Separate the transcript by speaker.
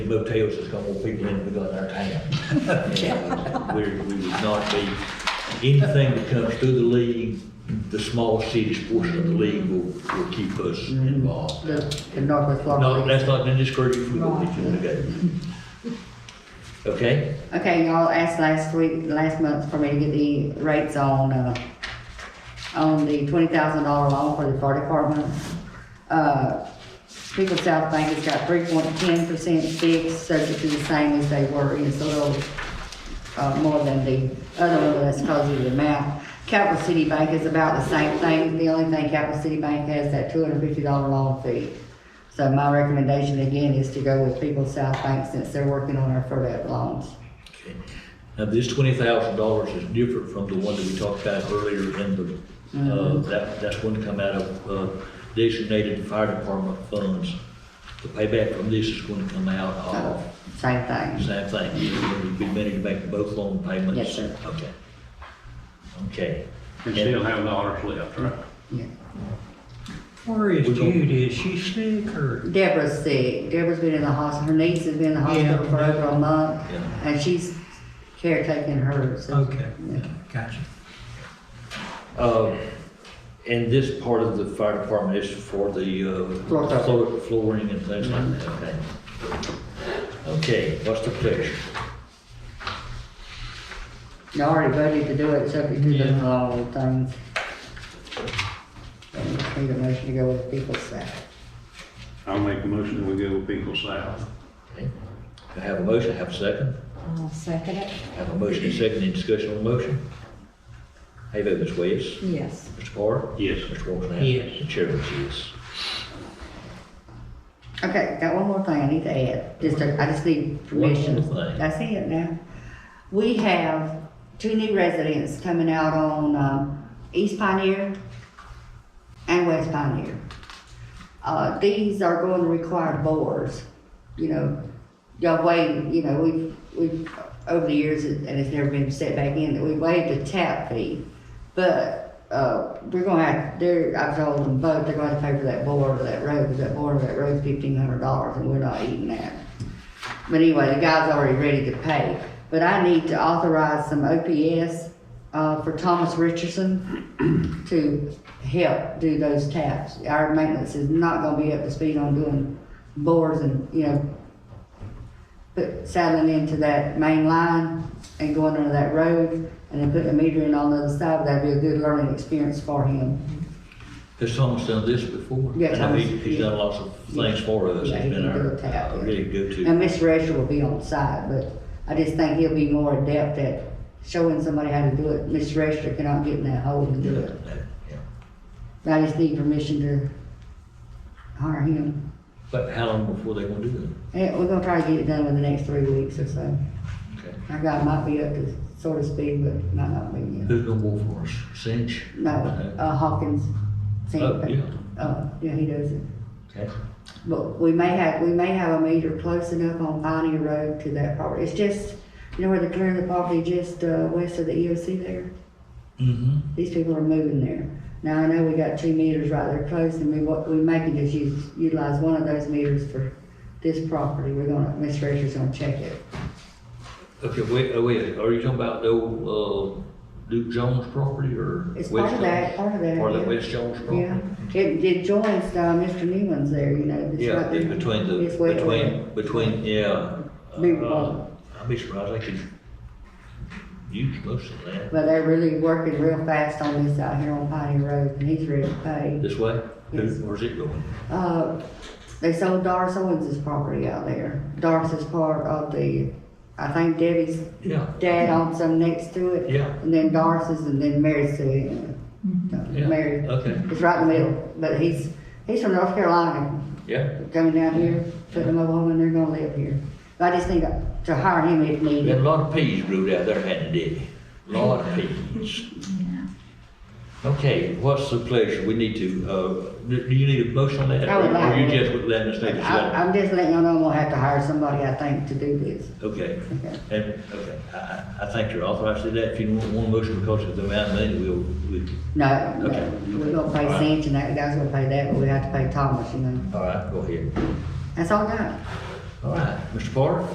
Speaker 1: motels that's gonna want people in to be in our town. And We, we would not be, anything that comes through the league, the small cities portion of the league will, will keep us involved.
Speaker 2: The, the Northwest
Speaker 1: No,
Speaker 2: Florida.
Speaker 1: that's not been discouraged from the league, okay? Okay?
Speaker 2: Okay, y'all asked last week, last month for me to get the rates on, uh, on the twenty thousand dollar loan for the fire department. Uh, People South Bank has got three point ten percent fixed, subject to the same as they were, it's a little, uh, more than the other one, but that's because of the amount. Capital City Bank is about the same thing, the only thing Capital City Bank has, that two hundred fifty dollar loan fee. So my recommendation again is to go with People South Bank since they're working on our FERDAP loans.
Speaker 1: Okay. Now, this twenty thousand dollars is different from the one that we talked about earlier in the, uh, that, that's going to come out of, uh, designated fire department funds. The payback from this is going to come out
Speaker 2: So,
Speaker 1: of,
Speaker 2: Same thing.
Speaker 1: same thing, you'll be ready to make both loan payments.
Speaker 2: Yes, sir.
Speaker 1: Okay. Okay.
Speaker 3: And still have the honors left, right?
Speaker 2: Yeah.
Speaker 4: Where is
Speaker 1: We don't-
Speaker 4: Judy? Is she sick or?
Speaker 2: Deborah's sick. Deborah's been in the hospital. Her niece has been in the hospital
Speaker 4: Yeah.
Speaker 2: for over a month.
Speaker 1: Yeah.
Speaker 2: And she's caretaking her. so-
Speaker 4: Okay,
Speaker 2: Yeah.
Speaker 4: gotcha.
Speaker 1: Uh, And this part of the fire department is for the uh,
Speaker 2: Floor tile.
Speaker 1: floor- flooring and things like that, okay?
Speaker 2: Mm-hmm.
Speaker 1: Okay, what's the pleasure?
Speaker 2: They already voted to do it, subject to the
Speaker 4: Yeah.
Speaker 2: law and things. So we just Need a motion to go with people's side.
Speaker 3: I'll make a motion that we go with Pickle South.
Speaker 1: Okay. I have a motion, I have a second.
Speaker 5: I'll second it.
Speaker 1: I Have a motion, and second, any discussion on the motion? How you vote, Ms. West?
Speaker 5: Yes.
Speaker 1: Mr. Carter?
Speaker 3: Yes.
Speaker 1: Mr. Wolfman?
Speaker 4: Yes.
Speaker 1: The chair votes yes.
Speaker 2: Okay, got one more thing I need to add, just, a- I just need permission.
Speaker 1: One more thing.
Speaker 2: That's it now. We have two new residents coming out on, um, East Pioneer and West Pioneer. Uh, these are going to require bores, you know, y'all waived, you know, we've, we've, over the years, and it's never been set back in, that we waived the tap fee. But, uh, we're gonna have, they're, I've told them both, they're gonna pay for that board of that road, because that board of that road's fifteen hundred dollars, and we're not eating that. But anyway, the guy's already ready to pay, but I need to authorize some OPS, uh, for Thomas Richardson to help do those taps. Our maintenance is not gonna be up to speed on doing bores and, you know, put, saddling into that main line and going under that road and then putting a meter in on the other side, that'd be a good learning experience for him.
Speaker 1: Has Thomas done this before?
Speaker 2: Yeah,
Speaker 1: I know he-
Speaker 2: Thomas,
Speaker 1: He's
Speaker 2: yeah.
Speaker 1: done lots of things for us.
Speaker 2: Yeah, he
Speaker 1: He's been
Speaker 2: can do
Speaker 1: our
Speaker 2: a tap,
Speaker 1: uh,
Speaker 2: yeah.
Speaker 1: really
Speaker 2: Now,
Speaker 1: go-to.
Speaker 2: Miss Rasher will be on site, but I just think he'll be more adept at showing somebody how to do it. Miss Rasher cannot get in that hole and do it.
Speaker 1: Yeah.
Speaker 2: I just need permission to hire him.
Speaker 1: But how long before they gonna do
Speaker 2: And we're gonna try to get it done in the next three weeks or so.
Speaker 1: that? Okay.
Speaker 2: Our guy might be up to sort of speed, but might not be yet.
Speaker 1: Who's gonna work for us? Cinch?
Speaker 2: No, uh, Hawkins.
Speaker 1: Oh, yeah.
Speaker 2: Uh, yeah, he does it.
Speaker 1: Okay.
Speaker 2: But we may have, we may have a meter close enough on Pioneer Road to that property. It's just, you know where the clearing of the property just, uh, west of the EOC there?
Speaker 1: Mm-hmm.
Speaker 2: These people are moving there. Now, I know we got two meters right there close and we, what, we may can just use, utilize one of those meters for this property. We're gonna, Miss Fraser's gonna check it.
Speaker 1: Okay, wait, uh, wait, are you talking about the old, uh, Duke Jones property or?
Speaker 2: It's part
Speaker 1: West
Speaker 2: of that,
Speaker 1: Jones?
Speaker 2: part of that,
Speaker 1: Part of the
Speaker 2: yeah.
Speaker 1: West Jones property?
Speaker 2: Yeah, it, it joins, uh, Mr. Newman's there, you know. it's
Speaker 1: Yeah,
Speaker 2: right
Speaker 1: in
Speaker 2: there.
Speaker 1: between the,
Speaker 2: It's way over there.
Speaker 1: between, between, yeah.
Speaker 2: Big
Speaker 1: Uh,
Speaker 2: one.
Speaker 1: I'd be surprised I could use most of that.
Speaker 2: But they're really working real fast on this out here on Pioneer Road, and he's ready to pay.
Speaker 1: This way? Who-
Speaker 2: Yes.
Speaker 1: Where's it going?
Speaker 2: Uh, they sold Doris Owens's property out there. Doris is part of the, I think Debbie's
Speaker 1: Yeah.
Speaker 2: dad owns some next to it.
Speaker 1: Yeah. Mm-hmm.
Speaker 2: And then Doris's, and then Mary's to it. No,
Speaker 1: Yeah,
Speaker 2: Mary,
Speaker 1: okay.
Speaker 2: it's right in the middle, but he's, he's from North Carolina,
Speaker 1: Yeah,
Speaker 2: coming down here, putting a mobile home, and they're gonna live here. But I just need to hire him if
Speaker 1: we had a
Speaker 2: needed.
Speaker 1: lot of peas brewed out there, hadn't it? Lot of peas. Okay, what's the pleasure? We need to, uh, do do you need a motion on that?
Speaker 2: I would like
Speaker 1: Or you
Speaker 2: one.
Speaker 1: just would let us know?
Speaker 2: I, I'm just letting y'all know I'm gonna have to hire somebody, I think, to do this.
Speaker 1: Okay,
Speaker 2: Okay.
Speaker 1: and, okay, I, I, I think you're authorized to do that, if you want one motion because of the amount of money, we'll, we,
Speaker 2: No,
Speaker 1: Okay.
Speaker 2: no, we're gonna pay
Speaker 1: All right.
Speaker 2: Cinch and that guy's gonna pay that, but we have to pay Thomas, you know.
Speaker 1: all right, go ahead.
Speaker 2: That's all I got.
Speaker 1: All right, Mr. Parker?